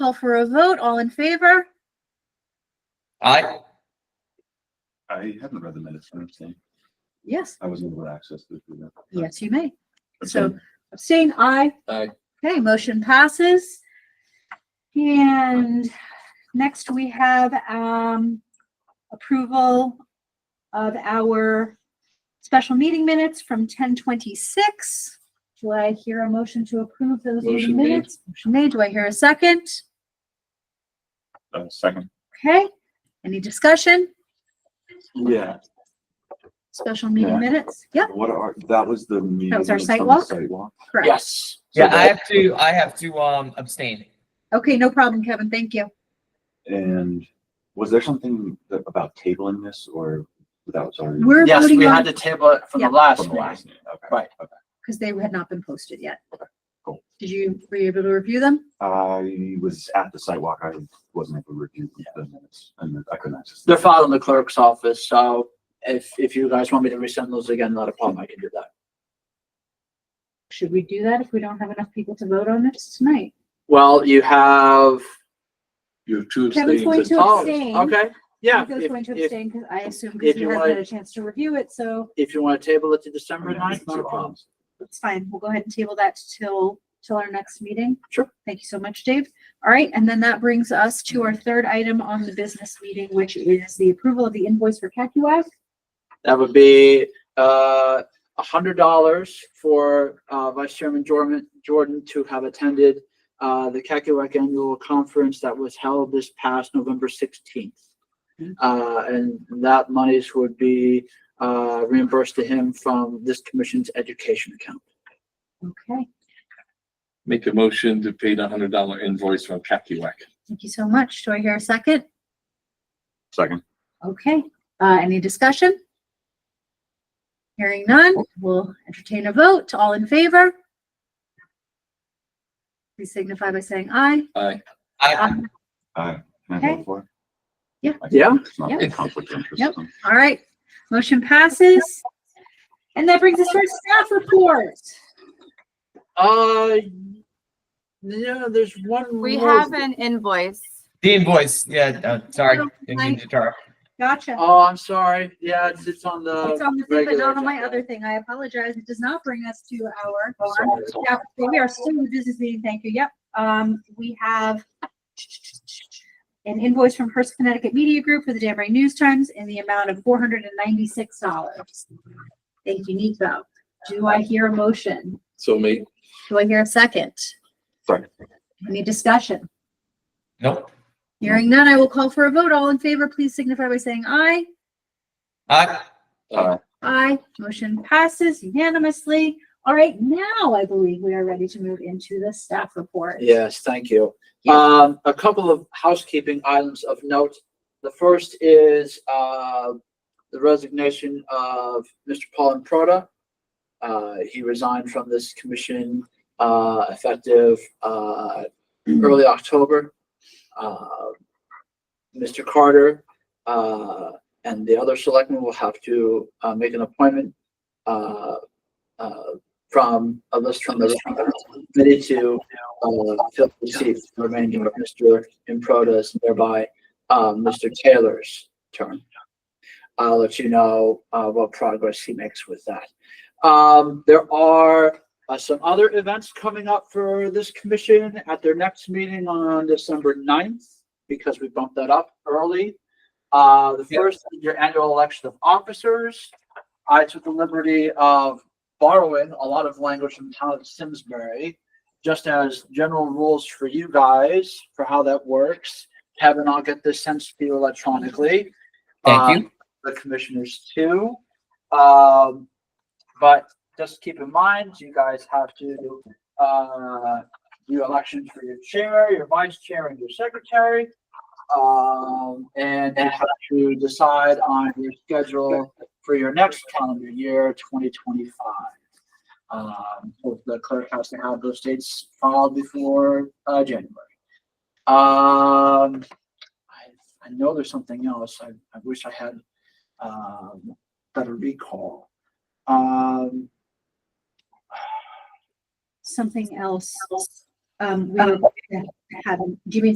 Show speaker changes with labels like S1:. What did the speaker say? S1: Call for a vote. All in favor?
S2: Aye.
S3: I haven't read the minutes, I understand.
S1: Yes,
S3: I wasn't able to access the. the-
S1: yes, you may.
S3: That's
S1: So
S3: fine.
S1: abstain, aye.
S2: Aye.
S1: Okay, motion passes. And next we have, um, approval of our special meeting minutes from ten twenty-six. Do I hear a motion to approve those meeting
S2: Motion made.
S1: minutes? Motion made. Do I hear a second?
S3: Uh, Second.
S1: Okay, any discussion?
S3: Yeah.
S1: Special meeting
S3: Yeah.
S1: minutes? Yep,
S3: What are, that was the meeting.
S1: That was our
S3: minutes from the
S1: sidewalk?
S3: Sidewalk.
S1: correct.
S2: Yes.
S3: So
S2: Yeah, I
S3: that-
S2: have to, I have to, um, abstain.
S1: Okay, no problem, Kevin. Thank you.
S3: And was there something that- about tabling this or that was already?
S1: We're
S4: Yes, we
S1: voting on,
S4: had the table it from
S1: Yeah.
S4: the last
S3: From the
S4: one.
S3: last meeting, okay.
S4: Right.
S1: because they had not been posted yet.
S3: cool.
S1: Did you, were you able to review them?
S3: I was at the sidewalk. I wasn't able to review the minutes and I couldn't access.
S4: They're filed in the clerk's office, so if, if you guys want me to resend those again, not a problem, I can do that.
S1: Should we do that if we don't have enough people to vote on this tonight?
S4: Well, you have,
S5: You have two
S1: Kevin's
S5: things.
S1: going to
S4: oh,
S1: abstain.
S4: okay, yeah.
S1: Nico's going
S4: If,
S1: to
S4: if,
S1: abstain because I assume because
S4: if
S1: he
S4: you
S1: hasn't had
S4: wanna-
S1: a chance to review it, so
S4: if you want to table it to
S3: I
S4: December
S3: mean, I
S4: ninth,
S3: didn't
S4: not
S3: see
S4: a
S3: it.
S4: problem.
S1: it's fine. We'll go ahead and table that till, till our next meeting.
S4: Sure.
S1: Thank you so much, Dave. All right, and then that brings us to our third item on the business meeting, which is the approval of the invoice for CACUAC.
S4: That would be, uh, a hundred dollars for, uh, Vice Chairman Jordan, Jordan to have attended, uh, the Kakiwak Annual Conference that was held this past November sixteenth. Uh, and that monies would be, uh, reimbursed to him from this commission's education account.
S1: Okay,
S5: Make a motion to pay the hundred dollar invoice from Kakiwak.
S1: thank you so much. Do I hear a second?
S3: Second.
S1: Okay, uh, any discussion? Hearing none, we'll entertain a vote. All in favor? Please signify by saying aye.
S5: Aye.
S2: I,
S3: Aye. Can I
S1: Okay.
S3: vote for it?
S1: Yeah.
S3: I-
S4: Yeah.
S3: It's not
S1: Yeah.
S3: a conflict of interest.
S1: Yep. All right, motion passes. And that brings us to our staff report.
S4: Uh, no, there's one.
S6: We
S4: more-
S6: have an invoice.
S2: the invoice, yeah, uh, sorry, didn't mean to interrupt.
S1: Gotcha.
S4: Oh, I'm sorry. Yeah, it's, it's on the.
S1: It's on the thing, but
S4: regular
S1: not on my
S4: agenda.
S1: other thing. I apologize. It does not bring us to our
S4: Sorry.
S1: Yeah, we are still in the business meeting, thank you, yep. Um, we have an invoice from Hearst Connecticut Media Group for the Danbury News Times in the amount of four hundred and ninety-six dollars. Thank you, Nico. Do I hear a motion?
S5: So me.
S1: Do I hear a second?
S3: Second.
S1: Any discussion?
S2: Nope.
S1: Hearing none, I will call for a vote. All in favor, please signify by saying aye.
S2: I,
S3: Aye.
S1: Aye, motion passes unanimously. All right, now I believe we are ready to move into the staff report.
S4: Yes, thank you.
S1: Yeah.
S4: Um, a couple of housekeeping items of note. The first is, uh, the resignation of Mr. Paul Improta. Uh, he resigned from this commission, uh, effective, uh, early October. Uh, Mr. Carter, uh, and the other selectmen will have to, uh, make an appointment, uh, uh, from a list from the committee to, uh, fill the seat for the remainder of Mr. Improta's, thereby, um, Mr. Taylor's term. I'll let you know, uh, what progress he makes with that. Um, there are, uh, some other events coming up for this commission at their next meeting on December 9th, because we bumped that up early. Uh, the
S2: Yeah.
S4: first, is your annual election of officers. I took the liberty of borrowing a lot of language from town of Simsbury, just as general rules for you guys, for how that works. Kevin, I'll get this sent to you electronically.
S2: Thank you.
S4: Um, The commissioners too. Um, but just keep in mind, you guys have to, uh, do elections for your chair, your vice chair, and your secretary. Um, and you have to decide on your schedule for your next calendar year, twenty twenty-five. Um, so the clerk has to have those dates filed before, uh, January. Um, I, I know there's something else. I, I wish I had, um, better recall. Um,
S1: Something else, um, we have, do you mean